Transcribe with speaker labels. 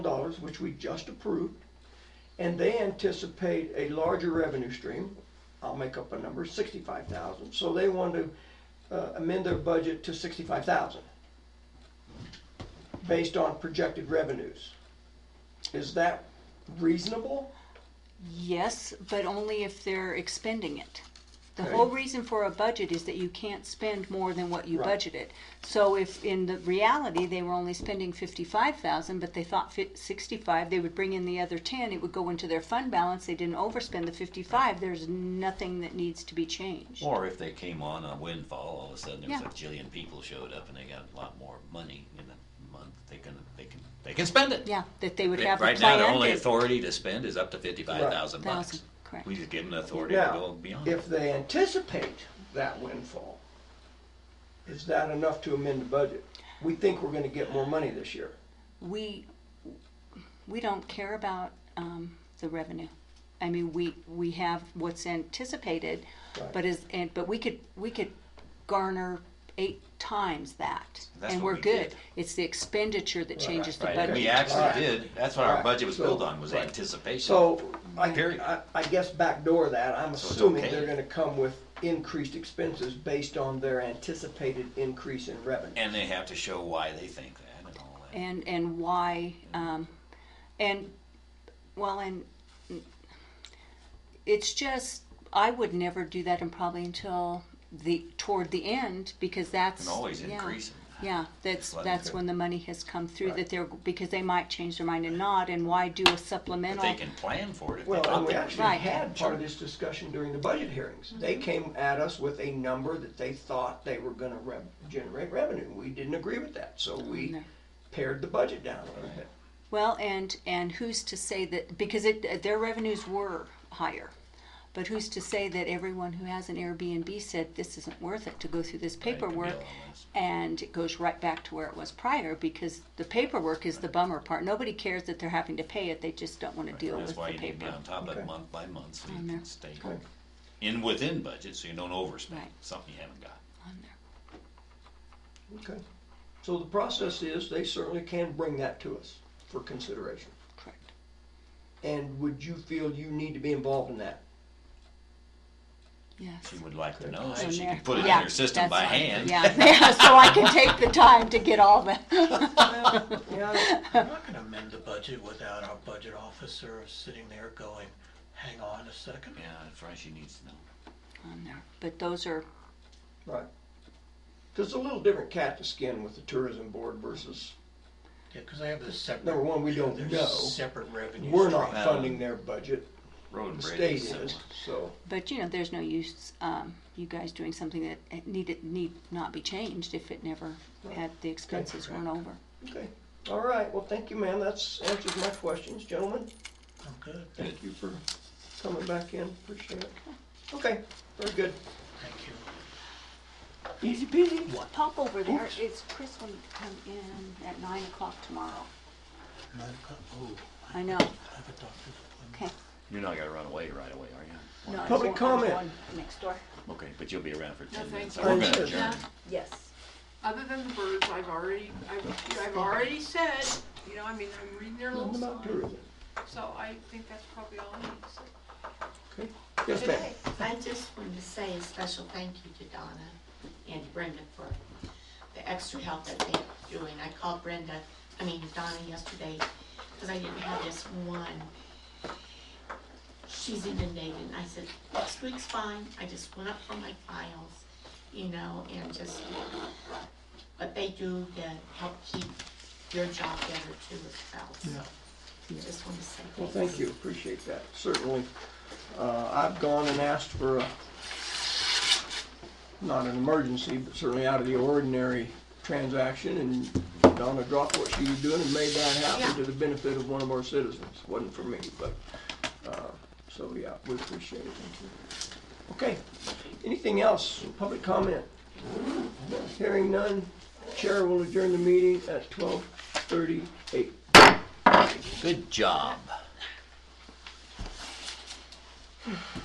Speaker 1: funds, which we just approved, and they anticipate a larger revenue stream. I'll make up a number, sixty-five thousand, so they want to uh, amend their budget to sixty-five thousand based on projected revenues. Is that reasonable?
Speaker 2: Yes, but only if they're expending it. The
Speaker 1: Okay.
Speaker 2: whole reason for a budget is that you can't spend more than what you
Speaker 1: Right.
Speaker 2: budgeted. So if in the reality, they were only spending fifty-five thousand, but they thought fit sixty-five, they would bring in the other ten, it would go into their fund balance, they didn't overspend the fifty-five, there's nothing that needs to be changed.
Speaker 3: Or if they came on a windfall, all of a sudden there was
Speaker 2: Yeah.
Speaker 3: a jillion people showed up and they got a lot more money in a month, they can, they can, they can spend it.
Speaker 2: Yeah, that they would
Speaker 3: They-
Speaker 2: have the
Speaker 3: Right now,
Speaker 2: plan
Speaker 3: their only
Speaker 2: to.
Speaker 3: authority to spend is up to fifty-five thousand
Speaker 2: Thousand,
Speaker 3: bucks.
Speaker 2: correct.
Speaker 3: We just give them the authority to go
Speaker 1: Now,
Speaker 3: beyond. it.
Speaker 1: if they anticipate that windfall, is that enough to amend the budget? We think we're gonna get more money this year.
Speaker 2: we, we don't care about um, the revenue. I mean, we, we have what's anticipated,
Speaker 1: Right.
Speaker 2: but is, and, but we could, we could garner eight times that.
Speaker 3: That's
Speaker 2: And
Speaker 3: what
Speaker 2: we're
Speaker 3: we
Speaker 2: good.
Speaker 3: did.
Speaker 2: It's the expenditure that changes the
Speaker 3: Right, and we
Speaker 2: budget.
Speaker 1: Alright.
Speaker 3: actually did, that's what our
Speaker 1: Alright,
Speaker 3: budget was
Speaker 1: so-
Speaker 3: built on, was
Speaker 1: right.
Speaker 3: anticipation.
Speaker 1: So, I,
Speaker 3: Period.
Speaker 1: I, I guess backdoor that, I'm
Speaker 3: So it's
Speaker 1: assuming
Speaker 3: okay.
Speaker 1: they're gonna come with increased expenses based on their anticipated increase in revenue.
Speaker 3: And they have to show why they think that and all that.
Speaker 2: And, and why, um, and, well, and it's just, I would never do that and probably until the, toward the end, because that's.
Speaker 3: And always
Speaker 2: yeah.
Speaker 3: increase them.
Speaker 2: Yeah, that's,
Speaker 3: let 'em
Speaker 2: that's
Speaker 3: cook.
Speaker 2: when the money has come through,
Speaker 1: Right.
Speaker 2: that they're, because they might change their mind and not, and why do a
Speaker 3: But
Speaker 2: supplemental?
Speaker 3: they can plan for it if they
Speaker 1: Well, and
Speaker 3: thought
Speaker 1: we
Speaker 3: they
Speaker 1: actually
Speaker 3: were.
Speaker 2: Right.
Speaker 1: had part of this discussion during the budget hearings. They came at us with a number that they thought they were gonna rev, generate revenue. We didn't agree with that, so we
Speaker 2: no.
Speaker 1: pared the budget down a little bit.
Speaker 2: Well, and, and who's to say that, because it, their revenues were higher. But who's to say that everyone who has an Airbnb said, this isn't worth it to go through this
Speaker 3: Right, to be
Speaker 2: paperwork?
Speaker 3: honest.
Speaker 2: And it goes right back to where it was prior, because the paperwork is the bummer part. Nobody cares that they're having to pay it, they just don't wanna deal with
Speaker 3: That's
Speaker 2: the
Speaker 3: why you need to be
Speaker 2: paper.
Speaker 3: on top of
Speaker 1: Okay.
Speaker 3: it month by month, so you
Speaker 2: On there.
Speaker 3: can stay
Speaker 1: Okay.
Speaker 3: in, within budget, so you don't overspend,
Speaker 2: Right.
Speaker 3: something you haven't got.
Speaker 2: on there.
Speaker 1: Okay. So the process is, they certainly can bring that to us for consideration.
Speaker 2: Correct.
Speaker 1: And would you feel you need to be involved in that?
Speaker 2: Yes.
Speaker 3: She would like to know, so
Speaker 2: on
Speaker 3: she
Speaker 2: there.
Speaker 3: can put it in
Speaker 2: Yeah,
Speaker 3: her system by
Speaker 2: that's fine.
Speaker 3: hand.
Speaker 2: Yeah, yeah, so I can take the time to get all the,
Speaker 1: Yeah.
Speaker 4: I'm not gonna amend the budget without our budget officer sitting there going, hang on a second.
Speaker 3: Yeah, that's right, she needs to know.
Speaker 2: on there. But those are,
Speaker 1: Right. Because it's a little different cat to skin with the tourism board versus,
Speaker 4: Yeah, cause they have this separate.
Speaker 1: Number one, we don't
Speaker 4: they're
Speaker 1: know.
Speaker 4: Separate revenue.
Speaker 1: we're not
Speaker 3: Right.
Speaker 1: funding their budget,
Speaker 3: Road
Speaker 1: the
Speaker 3: and bridge
Speaker 1: state
Speaker 3: is
Speaker 1: is,
Speaker 3: similar.
Speaker 1: so.
Speaker 2: but you know, there's no use, um, you guys doing something that it needed, need not be changed if it never had, the expenses weren't over.
Speaker 1: Okay, all right, well, thank you, ma'am, that's answers my questions, gentlemen,
Speaker 4: stream. I'm good,
Speaker 1: thank you for coming back in, appreciate it. Okay, very good,
Speaker 4: thank you.
Speaker 1: easy peasy.
Speaker 2: Pop over there,
Speaker 1: Oops.
Speaker 2: it's Chris wanted to come in at nine o'clock tomorrow.
Speaker 4: Nine o'clock, oh,
Speaker 2: I know,
Speaker 4: I have a doctor's appointment.
Speaker 2: okay.
Speaker 3: You're not gonna run away right away, are you?
Speaker 2: No, I
Speaker 1: Public
Speaker 2: was going- I was
Speaker 1: comment.
Speaker 2: going Next door.
Speaker 3: Okay, but you'll be around for ten
Speaker 5: No,
Speaker 3: minutes, so
Speaker 5: thank
Speaker 3: we're
Speaker 1: you.
Speaker 3: gonna
Speaker 1: Sure.
Speaker 3: adjourn.
Speaker 2: Yes.
Speaker 5: Other than the birds, I've already, I've, I've already said, you know, I mean, I'm reading their little
Speaker 1: Nothing about
Speaker 5: sign,
Speaker 1: tourism,
Speaker 5: so I think that's probably all I need to say.
Speaker 1: okay, yes, ma'am.
Speaker 6: I just wanted to say a special thank you to Donna and Brenda for the extra help that they're doing. I called Brenda, I mean Donna yesterday, because I didn't have this one. She's inundated, and I said, next week's fine, I just went up for my files, you know, and just what they do to help keep your job better too as well, so. Just wanted to say
Speaker 1: Well, thank you, appreciate that, certainly. Uh, I've gone and asked for a, not an emergency, but certainly out of the ordinary transaction, and Donna dropped what she was doing and made that happen
Speaker 6: Yeah.
Speaker 1: to the benefit of one of our citizens. Wasn't for me, but, uh, so yeah, we appreciate it. Okay, anything else, public comment? Hearing none, chair will adjourn the meeting at twelve thirty-eight.
Speaker 3: Good job.